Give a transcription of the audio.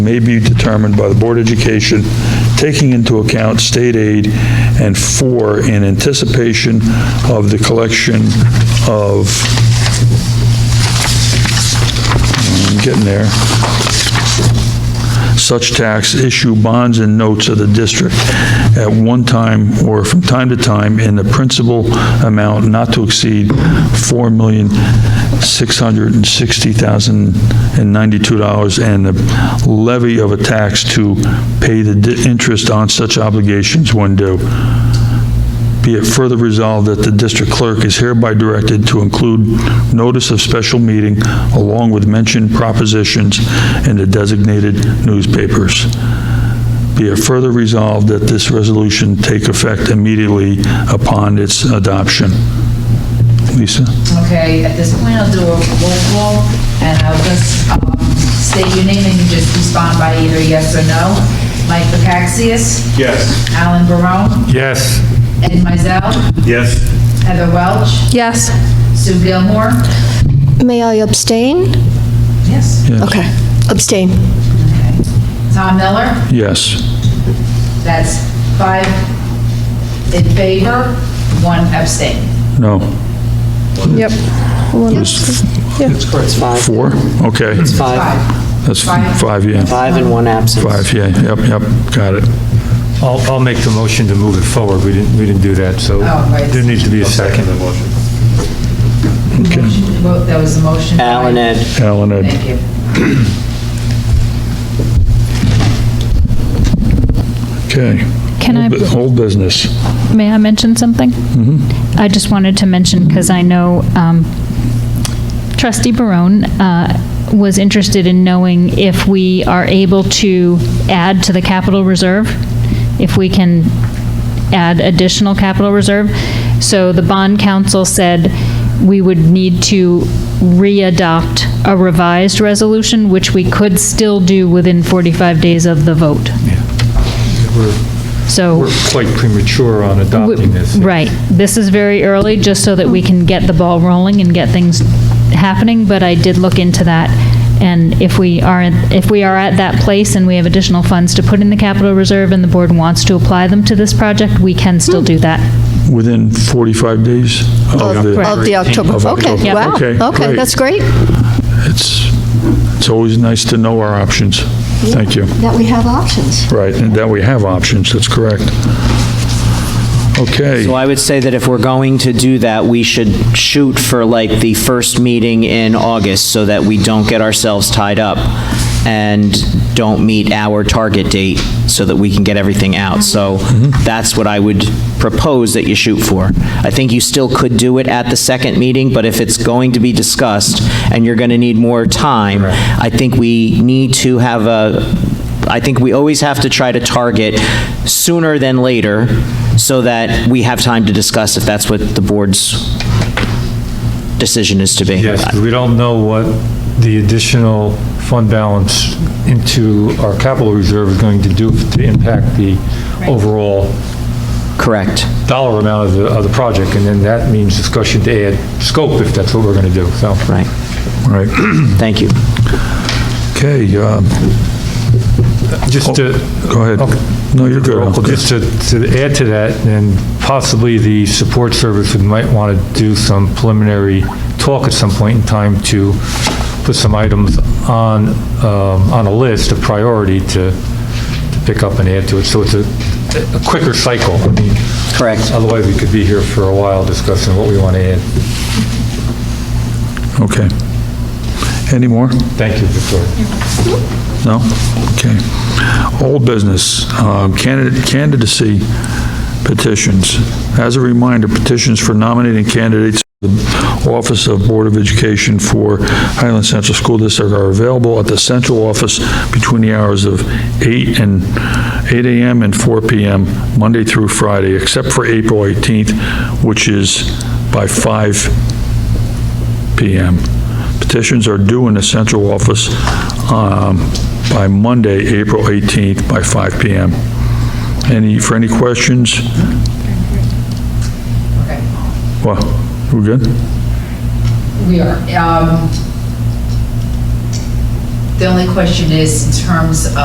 may be determined by the Board of Education, taking into account state aid, and four, in anticipation of the collection of, I'm getting there, such tax, issue bonds and notes of the district at one time or from time to time in the principal amount not to exceed $4,660,092 and the levy of a tax to pay the di- interest on such obligations when due. Be it further resolved that the district clerk is hereby directed to include notice of special meeting along with mentioned propositions in the designated newspapers. Be it further resolved that this resolution take effect immediately upon its adoption. Lisa? Okay, at this point, I'll do a roll call, and I'll just um, state your name, and you just respond by either yes or no. Mike Bakaxias, Yes. Alan Barone, Yes. Ed Mizell, Yes. Heather Welch, Yes. Sue Gilmore. May I abstain? Yes. Yes. Okay, abstain. Tom Miller, Yes. that's five in favor, one abstain. No. Yep. It's Or it's five. Four? Okay. Five, Five. That's Five. five, yeah. five and one absent. Five, yeah. Yep, yep. Got it. I'll, I'll make the motion to move it forward. We didn't, we didn't do that, so Oh, right. there needs to be a second. Motion to vote, That was the motion. Alan, Ed, Alan, Ed. Thank you. Okay. Can I- Old business. May I mention something? I just wanted to mention, because I know um, trustee Barone uh, was interested in knowing if we are able to add to the capital reserve, if we can add additional capital reserve. So the bond council said we would need to re-adopt a revised resolution, which we could still do within 45 days of the vote. So. We're quite premature on adopting this. Right. This is very early, just so that we can get the ball rolling and get things happening, but I did look into that. And if we are, if we are at that place and we have additional funds to put in the capital reserve and the board wants to apply them to this project, we can still do that. Within 45 days of the, Correct. Of the October, Oh, Of October. okay, wow, Okay, okay, great. that's great. it's, it's always nice to know our options. Thank you. That we have options. Right, and that we have options, that's correct. Okay, so I would say that if we're going to do that, we should shoot for like the first meeting in August so that we don't get ourselves tied up and don't meet our target date so that we can get everything out. So that's what I would propose that you shoot for. I think you still could do it at the second meeting, but if it's going to be discussed and you're going to need more time, I think we need to have a, I think we always have to try to target sooner than later so that we have time to discuss if that's what the board's decision is to be. Yes, 'cause we don't know what the additional fund balance into our capital reserve is going to do to impact the overall Correct. dollar amount of the, of the project. And then that means discussion to add scope if that's what we're going to do, so. Right. all right, Thank you. okay, um, Just to, go ahead. No, you're good. Uncle. Well, Just to, to add to that, and possibly the support service, we might want to do some preliminary talk at some point in time to put some items on, um, on a list, a priority to, to pick up and add to it. So it's a, a quicker cycle. I mean, Correct. Otherwise, we could be here for a while discussing what we want to add. Okay. Any more? Thank you, Victoria. No? Okay. Old business, um, candidate, candidacy petitions. As a reminder, petitions for nominating candidates for the Office of Board of Education for Highland Central School District are available at the central office between the hours of 8 and 8 a.m. and 4 p.m., Monday through Friday, except for April 18th, which is by 5 p.m. Petitions are due in the central office um, by Monday, April 18th, by 5 p.m. Any, for any questions? Okay. What, we good? We are. um, The only question is in terms